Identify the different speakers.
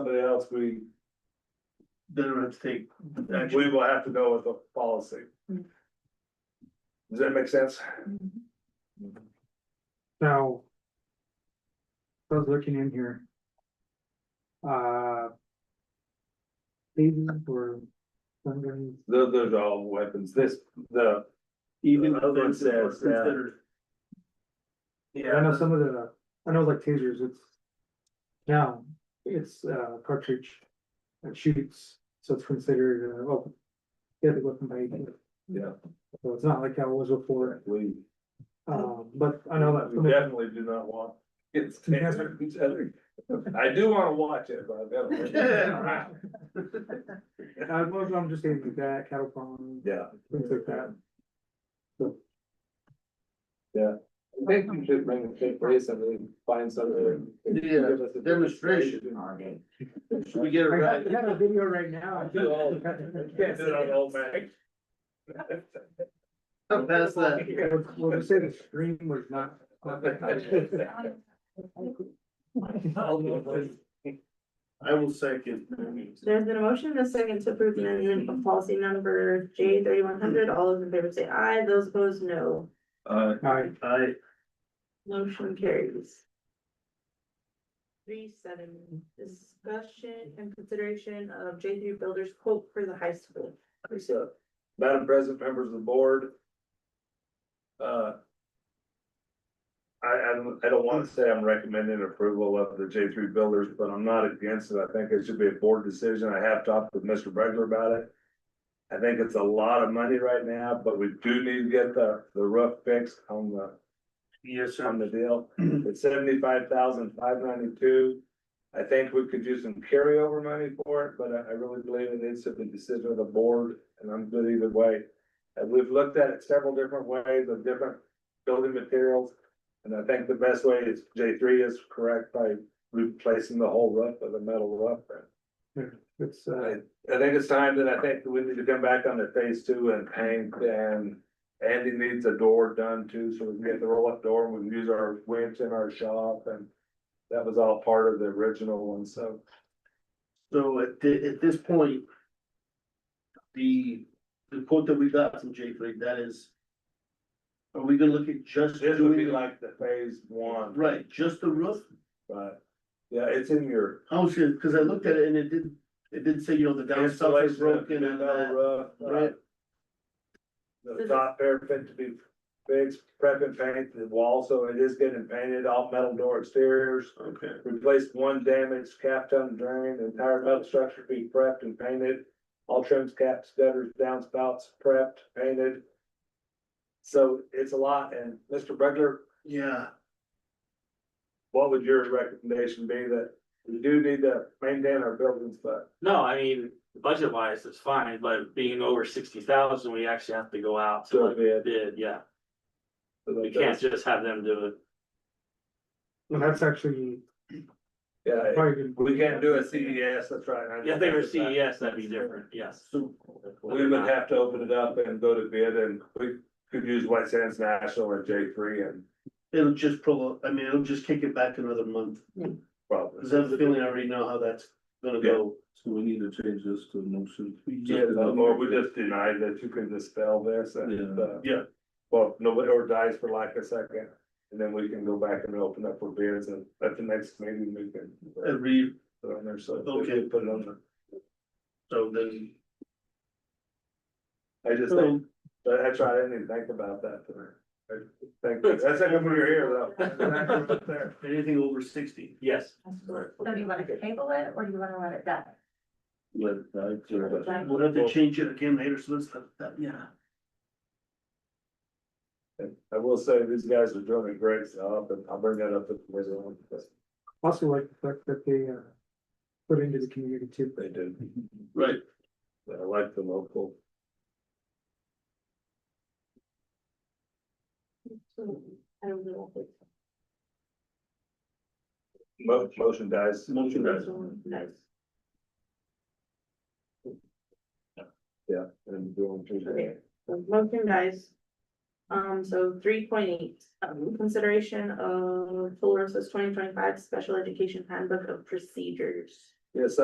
Speaker 1: somebody else, we,
Speaker 2: then we have to take action.
Speaker 1: we will have to go with the policy. Does that make sense?
Speaker 3: So. I was looking in here. Uh. Pages or something,
Speaker 1: Those, those are all weapons, this, the.
Speaker 2: Even
Speaker 1: The
Speaker 2: though
Speaker 1: other one
Speaker 2: that's
Speaker 1: says, yeah.
Speaker 2: considered.
Speaker 3: I know
Speaker 1: Yeah,
Speaker 3: some of the, I know like tasers, it's. Now, it's uh cartridge. That shoots, so it's considered, uh, well. Yeah, the weapon by,
Speaker 1: yeah,
Speaker 3: so it's not like how it was before,
Speaker 1: we,
Speaker 3: um, but I know that.
Speaker 1: we definitely do not want. It's taser each other. I do wanna watch it, but I've got.
Speaker 3: I was, I'm just saying that cattle farm,
Speaker 1: Yeah.
Speaker 3: things like that.
Speaker 1: I think you should bring a big place and really find something.
Speaker 2: Yeah, demonstration. Should we get it
Speaker 3: I
Speaker 2: right?
Speaker 3: got, I got a video right now. I
Speaker 1: Do all-
Speaker 3: think-
Speaker 1: Can't do it on old Mac.
Speaker 2: I'll pass that.
Speaker 3: Well, they say the stream was not.
Speaker 2: I will second.
Speaker 4: There's been a motion and a second to approve the amendment of policy number J thirty-one hundred. All those in favor say aye, those opposed, no.
Speaker 1: Uh,
Speaker 3: Alright,
Speaker 2: I,
Speaker 4: Motion carries. Three seven, discussion and consideration of J three builders quote for the high school.
Speaker 1: so, uh, Madam President, members of the board. Uh. I, I don't, I don't wanna say I'm recommending approval of the J three builders, but I'm not against it. I think it should be a board decision. I have talked with Mr. Bregler about it. I think it's a lot of money right now, but we do need to get the, the roof fixed on the
Speaker 2: yes,
Speaker 1: on
Speaker 2: I'm,
Speaker 1: the deal. It's seventy-five thousand five ninety-two. I think we could do some carryover money for it, but I, I really believe it is a decision of the board, and I'm good either way. And we've looked at it several different ways of different building materials. And I think the best way is J three is correct by replacing the whole roof with a metal roof.
Speaker 3: it's, uh,
Speaker 1: I think it's time that I think we need to come back on the phase two and paint and Andy needs a door done too, so we can get the roll up door and we can use our winch in our shop and. That was all part of the original one, so
Speaker 2: so at thi- at this point. The, the quote that we got from J three, that is. Are we gonna look at just
Speaker 1: this would be
Speaker 2: doing,
Speaker 1: like the phase one,
Speaker 2: right, just the roof?
Speaker 1: but yeah, it's in your.
Speaker 2: I was gonna, cause I looked at it and it did, it did say, you know, the downside is
Speaker 1: Installation of
Speaker 2: broken and
Speaker 1: metal
Speaker 2: that,
Speaker 1: roof,
Speaker 2: right?
Speaker 1: The top parapet to be fixed, prep and paint the wall, so it is getting painted, all metal door exteriors.
Speaker 2: Okay.
Speaker 1: Replace one damaged cap ton drain, The entire metal structure be prepped and painted. All trims, caps, gutters, downspouts prepped, painted. So it's a lot, and Mr. Bregler,
Speaker 2: Yeah,
Speaker 1: what would your recommendation be that we do need to maintain our buildings, but
Speaker 5: No, I mean, budget wise, it's fine, but being over sixty thousand, we actually have to go out to
Speaker 1: still
Speaker 5: like
Speaker 1: be
Speaker 5: a
Speaker 1: it.
Speaker 5: bid, yeah. We can't just have them do it.
Speaker 3: well, that's actually
Speaker 1: Yeah,
Speaker 3: probably. good.
Speaker 1: we can't do a CES, that's right. I
Speaker 5: If they were E
Speaker 1: just-
Speaker 5: CES, that'd be different, yes.
Speaker 2: so
Speaker 1: We would have to open it up and go to bid, and we could use White Sands National or J three and
Speaker 2: it'll just prolong, I mean, it'll just kick it back another month.
Speaker 1: probably.
Speaker 2: Cause I have a feeling I already know how that's gonna go. So we need to change this to motion. Yeah,
Speaker 1: Or we just deny that you can dispel this and, uh,
Speaker 2: yeah,
Speaker 1: well, nobody or dies for lack of second. And then we can go back and open up for bids and at the next meeting, we can uh,
Speaker 2: every,
Speaker 1: put it on there, so. we
Speaker 2: Okay.
Speaker 1: can Put it on there.
Speaker 2: so then.
Speaker 1: I just think, I I tried, I didn't even think about that. I think- That's like when we were here though.
Speaker 2: So, Anything over sixty.
Speaker 5: Yes,
Speaker 6: So do you wanna table it or do you wanna let it die?
Speaker 2: We'll
Speaker 1: Right.
Speaker 2: have to change it again later, so let's, that, yeah.
Speaker 1: And I will say, these guys are doing a great job, and I'll bring that up at the wizard, because
Speaker 3: Also like the fact that they, uh, put into the community too.
Speaker 1: they do.
Speaker 2: Right.
Speaker 1: I like the local.
Speaker 4: I don't know.
Speaker 1: Mo- Motion dies.
Speaker 2: Motion dies.
Speaker 4: Nice.
Speaker 1: Yeah, and doing.
Speaker 4: Okay. So Motion dies. Um, so three point eight, um, consideration of Tularosa's twenty twenty-five Special Education Handbook of Procedures.
Speaker 1: Yes,